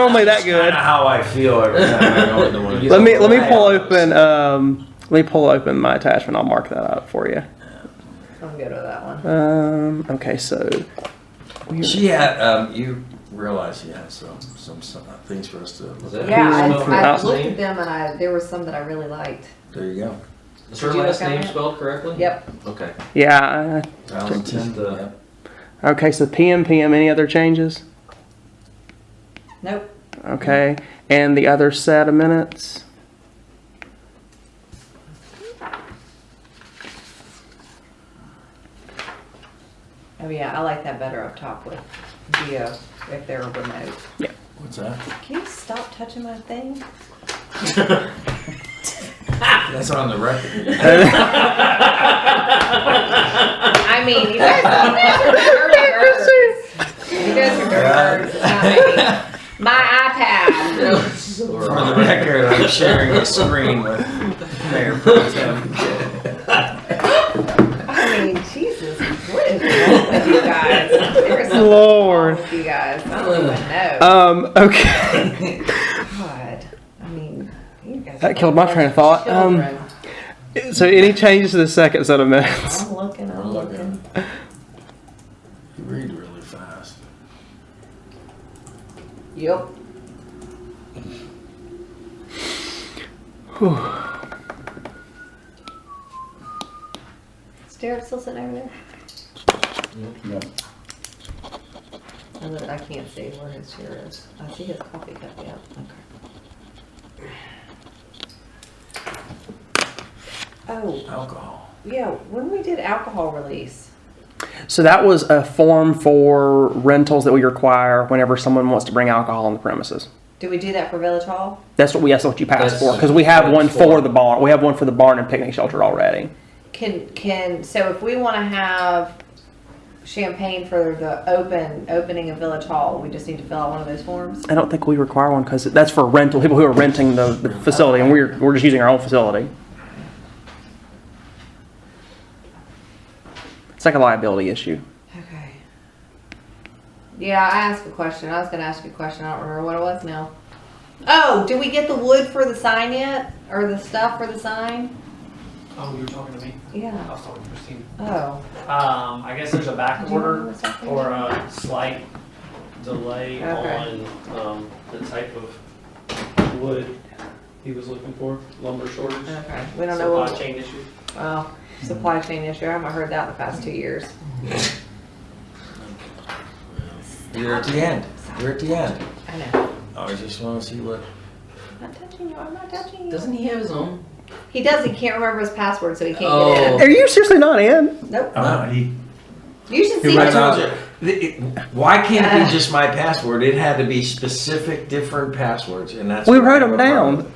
Normally that good. how I feel every time I go in the woods. Let me let me pull open. Um, let me pull open my attachment. I'll mark that up for you. I'm good with that one. Um, okay, so we She had. Um, you realize she had some some, some things for us to. Look at. Yeah, I, Who's I the looked name? at them and I, there were some that I really liked. There you go. Is her Did you last look at name it? spelled correctly? Yep. Okay. yeah. Valentin. the- yep. I- Okay, so PM PM. Any other changes? Nope. Okay, and the other set of minutes. Oh yeah, I like that better up top with Geo if they're remote. What's that? Can you stop touching my thing? That's on the record. I mean, you guys are dirty birds. You guys are dirty birds. It's not me. My iPad. For the record, I'm sharing the screen with Mayor Pro Tem. I mean, Jesus, what is wrong with you guys? There is something Lord. wrong with you guys. I don't even know. Um, okay, God, I mean, you guys. That are killed my train of thought. Um, children. so any changes to the second set of minutes? I'm looking. I'm I'm looking. looking. You read really fast. Yep. Is Derek still sitting over there? No. I look, I can't see where his chair is. I see his coffee cup, yeah, okay. Oh, Alcohol. yeah, when we did alcohol release, So that was a form for rentals that we require whenever someone wants to bring alcohol on the premises. did we do that for Village Hall? That's what we. That's what you passed That's- for because we have that's one for for- the barn. We have one for the barn and picnic shelter already. Can, can, so if we wanna have champagne for the open, opening of Village Hall, we just need to fill out one of those forms? I don't think we require one because that's for rental people who are renting the, the facility, and we're we're just using our own facility. It's like a liability issue. Okay. Yeah, I asked a question. I was gonna ask you a question. I don't remember what it was now. Oh, did we get the wood for the sign yet? Or the stuff for the sign? Oh, you were talking to me? I Yeah. was talking to Christine. Oh. Um, I guess there's a Do back you remember order what's up there? or a slight delay Okay. on, um, the type of wood he was looking for, lumber shortage. Okay, we don't know Supply what, chain issue. well, supply chain issue. I haven't heard that in the past two years. You're at the end. You're at the end. I know. I just want to see what. I'm not touching you. I'm not touching you. Doesn't he have his own? He does. He can't remember his password, so he can't get Oh. Are you seriously not in? in. Nope. No, he You should Who see Uh-huh. ran out him. of- the- it- Why can't it be just my password? It had to be specific, different passwords, and that's We what I wrote 'em have a down. problem with.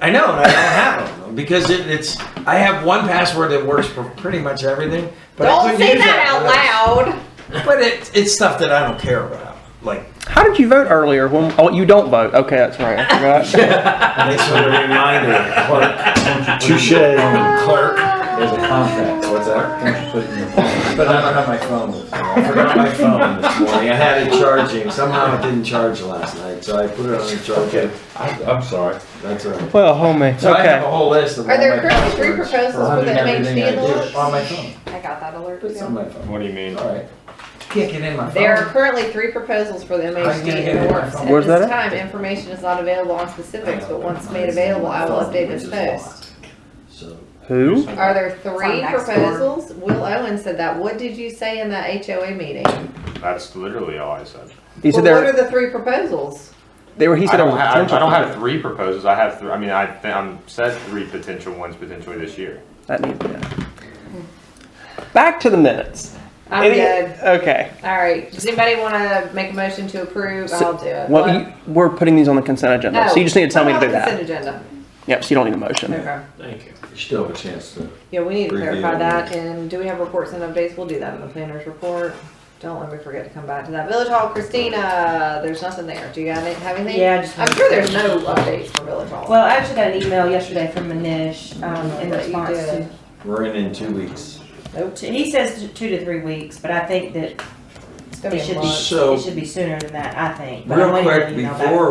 I, I know, and I don't have them because it, it's. I have one password that works for pretty much everything, but I Don't couldn't say use that out loud. loud. But it, it's stuff that I don't care about. Like How did you vote earlier? When, oh, you don't vote. Okay, that's right. I forgot. thanks for the reminder, clerk. Touche. There's Clerk, a contract. what's that? Don't you put it in your phone? But I don't have my phone with me. I forgot my phone this morning. I had it charging. Somehow it didn't charge last night, so I put it on the charger. Okay, I- I'm sorry. That's all right. well, homie. So I have a Okay. whole list of. Are all there my currently three passwords proposals for for the everything MHD I do. alerts? On my phone. I got that alert. It's on too. my phone. What do you mean? All right. Can't get in my phone. There are currently three proposals for the How's it gonna MHD get in in the my works. phone? At Where's that this at? time, information is not available on specifics, but once made available, I will update this post. So. Who? Are there three It's on Nextdoor. proposals? Will Owen said that. What did you say in that HOA meeting? That's literally all I said. He said Well, what are there. the three proposals? They were. He I said there don't, was ha- I, I potential. don't for have it. three proposals. I have, three, I mean, I th- I'm said three potential ones potentially this year. That needs to be. Back to the minutes. Oh. I'm Any- good. Okay. All right. Does anybody want to make a motion to approve? So- I'll do it. Well, What? you, we're putting these on the consent agenda, No. so you just need to tell me to Put do it on that. Consent agenda. Yep. So you don't need a motion. Okay. Thank you. You still have a chance to. Yeah, we need to Review. clarify that, and do we have reports and updates? We'll do that in the planner's report. Don't let me forget to come back to that. Village Hall, Christina, there's nothing there. Do you got any, have anything? Yeah, I just I'm wanted sure to- there's no updates for Village Hall. Well, I actually got an email yesterday from Manish, um, in That you response to, did. We're in in two weeks. to- he says t- two to three weeks, but I think that It's gonna it be a should month. be, So- it should be sooner than that, I think. But I Real wanted to quick, email back. before